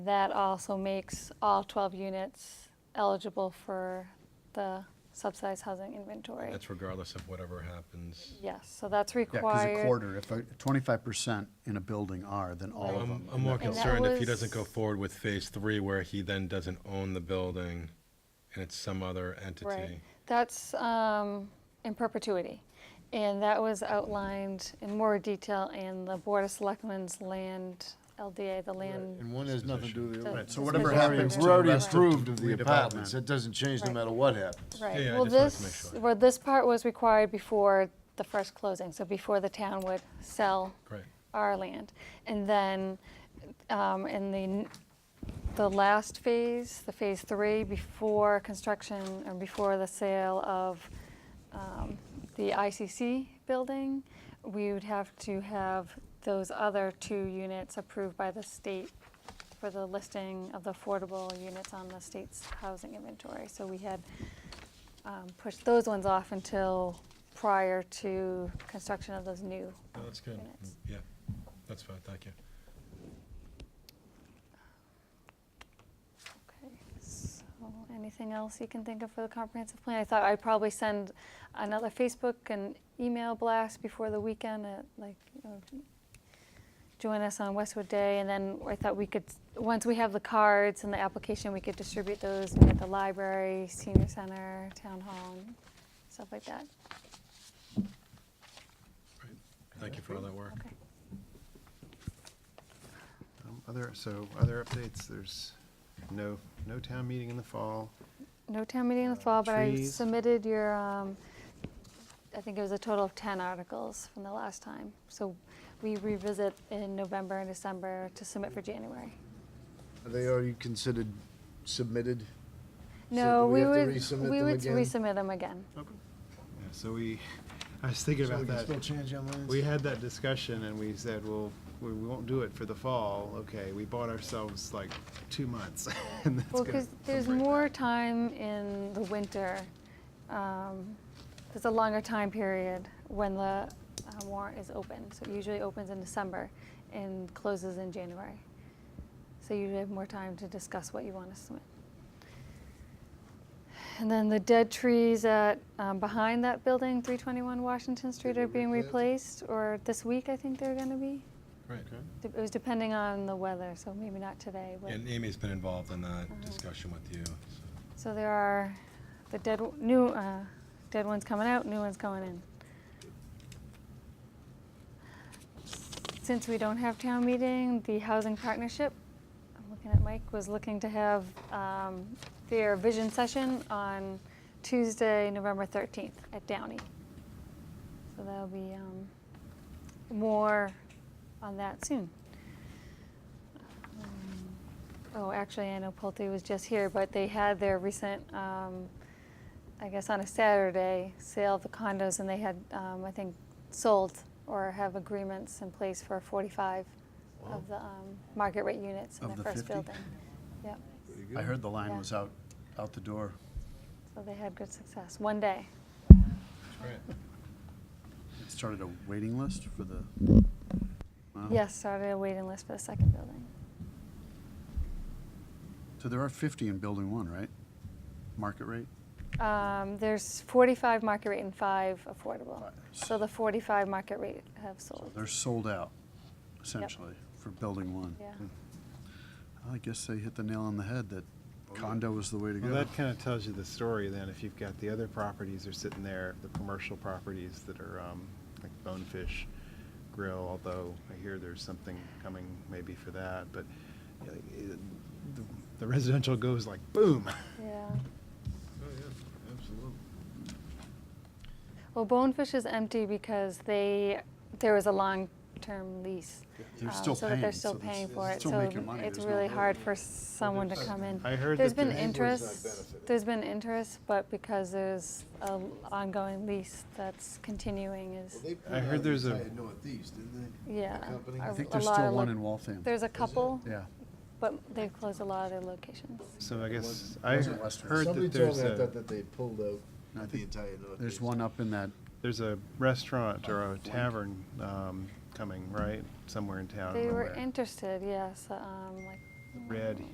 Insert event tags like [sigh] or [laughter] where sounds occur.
That also makes all 12 units eligible for the subsidized housing inventory. That's regardless of whatever happens. Yes, so that's Yeah, because a required. quarter, if twenty-five percent in a building are, then all of Right. them. I'm, I'm more And that concerned if he was- doesn't go forward with phase three where he then doesn't own the building and it's some other Right, entity. that's um, in perpetuity. And that was outlined in more detail in the Board of Selectmen's land, LDA, the land. And one has nothing to do with the Doesn't- other. Right, so So whatever Right. happens to We're the already rest of approved of the redevelopment. apartments, that doesn't change no Right. matter what happens. Right, Yeah, I well, just wanted to make this, sure. well, this part was required before the first closing, so before the town would sell Great. our land. And then um, in the, n- the last phase, the phase three, before construction and before the sale of um, the ICC building, we would have to have those other two units approved by the state for the listing of the affordable units on the state's housing inventory. So we had um, pushed those ones off until prior to construction of those new No, That's good. Minutes. Yeah, that's fine, thank you. Okay, so anything else you can think of for the comprehensive plan? I thought I'd probably send another Facebook and email blast before the weekend at like, you know, join us on Westwood Day, and then I thought we could, once we have the cards and the application, we could distribute those at the library, senior center, town hall, and stuff like that. Great. Thank you for all that work. Okay. Um, Other, so other updates, there's no, no town meeting in the fall. No town meeting in the fall, but I trees. submitted your, um, I think it was a total of 10 articles from the last time. So we revisit in November and December to submit for January. Are they already considered submitted? So No, do we we have to would, resubmit we them would again? resubmit them again. Yeah, So we, [laughs] I was thinking So we about can still that. change our minds? We had that discussion and we said, well, we we won't do it for the fall. Okay, we bought ourselves like two months. [laughs] and that's Well, gonna- because there's break more time in the winter. um, There's a longer time period when the uh, warrant is open. So it usually opens in December and closes in January. So you have more time to discuss what you want to submit. And then the dead trees at, um, behind that building, 321 Washington Street are being replaced, or this week, I think they're gonna be. Right. De- It was depending on the weather, so maybe not today, but. And Amy's been involved in that Uh-huh. discussion with you. so. So there are the dead, w- new, uh, dead ones coming out, new ones going in. Since we don't have town meeting, the housing partnership, I'm looking at Mike, was looking to have, um, their vision session on Tuesday, November thirteenth at Downey. So there'll be, um, more on that soon. Um, Oh, actually, I know Pulte was just here, but they had their recent, um, I guess on a Saturday, sale of the condos, and they had, um, I think, sold or have agreements in place for 45 of the um, market rate units in Of the the first 50? building. Yep, I heard the line Yeah. was out, out the door. so they had good success, one day. Great. It started a waiting list for the. Wow. Yes, started a waiting list for the second building. So there are fifty in building one, right? Market rate? Um, There's 45 market rate and five affordable. Right. So the 45 market rate have So sold. They're sold out, essentially, for building one. Yeah. I guess they hit the nail on the head that Oh, condo is the way to Well, go. that kind of tells you the story then, if you've got the other properties are sitting there, the commercial properties that are, um, like Bonefish Grill, although I hear there's something coming maybe for that, but you know, it- the- the residential goes like boom. Yeah. Oh, yeah, absolutely. Well, Bonefish is empty because they, there was a long-term lease. They're um, still so that they're paying, still so this- paying it's for it, still so making money, it's there's no really way. hard for someone to come in. I heard There's that the been landlord's not interest, benefiting. there's been interest, but because there's a l- ongoing lease that's continuing is, I heard there's a- Northeast, didn't they? yeah. The company? a- I think a there's lot still of one lo- in Waltham. There's a couple, Yeah. but they've closed a lot of their locations. So I guess, wasn't- I wasn't Western. heard Somebody that told there's me, I thought a, that they pulled I out the think entire Northeast. There's one up in that, there's a restaurant or a tavern, um, coming, right? Somewhere in town. I don't They know were where. interested, yes, um, like red